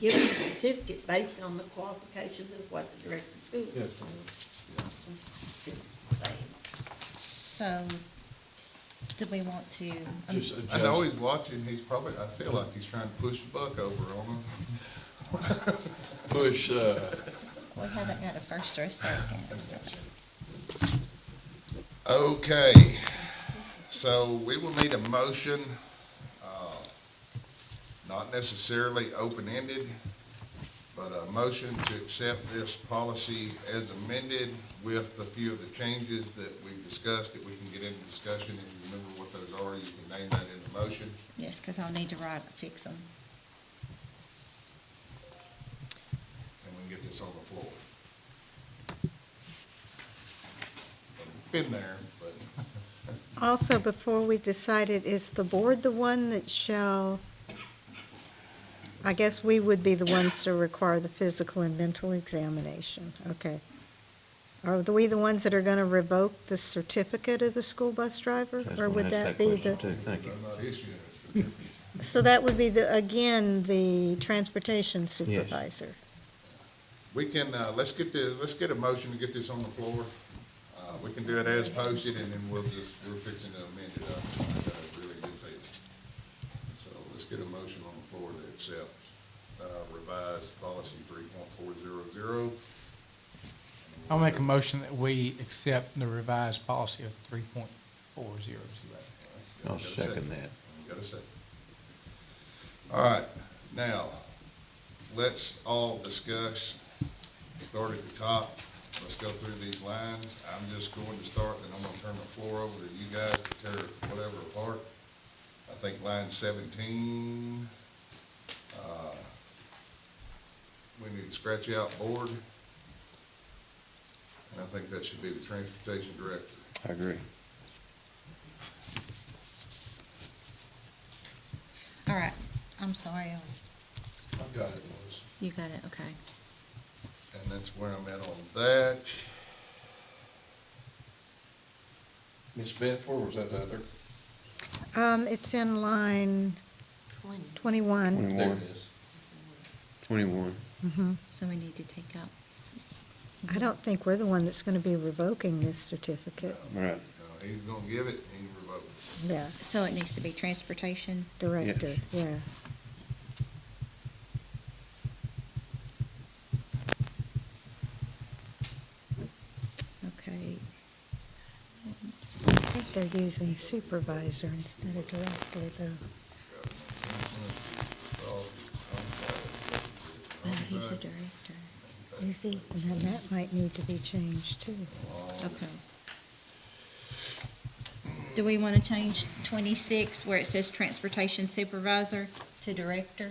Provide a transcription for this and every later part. given a certificate based on the qualifications of what the director of schools. Yes, It's- it's the same. So, do we want to? um, Just I know adjust, he's watching, he's probably, I feel like he's trying to push the buck over on him. push, uh, We haven't got a first or a second. Okay, so we will need a motion, uh, not necessarily open-ended, but a motion to accept this policy as amended with a few of the changes that we've discussed, that we can get into discussion. If you remember what those are, you can name that in the motion. Yes, because I'll need to write, fix them. and we can get this on the floor. Been there, but Also, before we decided, is the board the one that shall, I guess we would be the ones to require the physical and mental examination, okay. Are we the ones that are gonna revoke the certificate of the school bus driver? That's Or one, would that's that be question the, too. Thank you. I'm not issuing a certificate. so that would be the, again, the transportation supervisor? We can, uh, let's get the, let's get a motion to get this on the floor. Uh, we can do it as posted, and then we'll just, we're fixing to amend it up, I got a really good feeling. So let's get a motion on the floor to accept, uh, revised policy three point four zero zero. I'll make a motion that we accept the revised policy of three point four zero zero. I'll second that. Got a second. All right, now, let's all discuss, start at the top, let's go through these lines. I'm just going to start, and I'm gonna turn the floor over to you guys to tear whatever apart. I think line seventeen, uh, we need to scratch out board. And I think that should be the transportation director. I agree. All right, I'm sorry, I was, I've got it, Melissa. you got it, okay. And that's where I'm at on that. Ms. Beth, where was that other? Um, it's in line Twenty. twenty-one. There Twenty-one. it is. Twenty-one. Mhm. So we need to take out, I don't think we're the one that's gonna be revoking this certificate, Right. Uh, He's gonna give it, he revoked. yeah, so it needs to be transportation. director, yeah. Okay, I think they're using supervisor instead of director, though. no, he's a director. You see, and then that might need to be changed, too. Okay. Do we want to change twenty-six where it says transportation supervisor to director?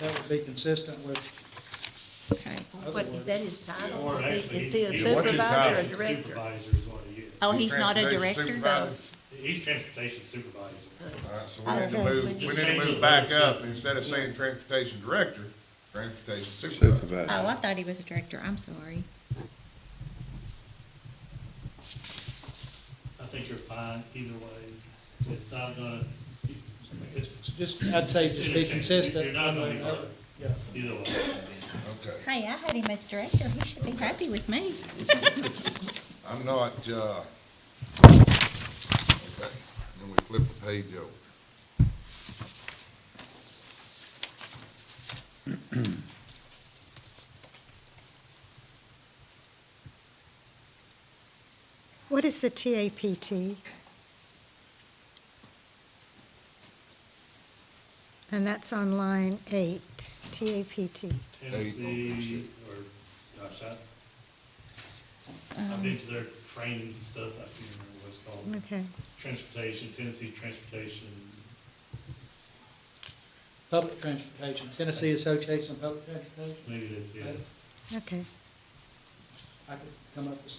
That would be consistent with, Okay. What, is that his title? Or Is he- actually, is he a he- Yeah, what's his supervisor or title? director? Supervisor is what he is. Oh, he's not a Transportation director though? Oh, supervisor. He's transportation supervisor. All right, so we need to Okay. move, we need to move back up, instead of saying transportation director, transportation supervisor. Supervisor. Oh, I thought he was a director, I'm sorry. I think you're fine either way. It's not gonna, it's just, I'd say just be consistent. You're not gonna be Yeah. hurt. either way. Okay, Hey, I had him as director, he should be happy with me. I'm not, uh, okay, then we flip the page over. What is the TAPT? And that's on line eight, TAPT. Tennessee, or, gosh, I, I've been to their trainings and stuff, I can't remember what it's called. Okay, It's transportation, Tennessee transportation, Public transportation, Tennessee Association of Public Transportation. maybe that's, yeah. okay. I could come up with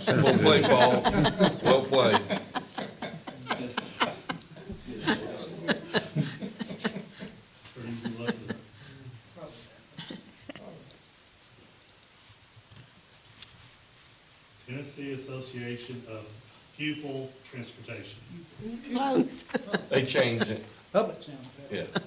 some others. Well played, Paul. Well played. Or you can look it up. Tennessee Association of Pupil Transportation. Close. They changed it. Public sounds better. yeah.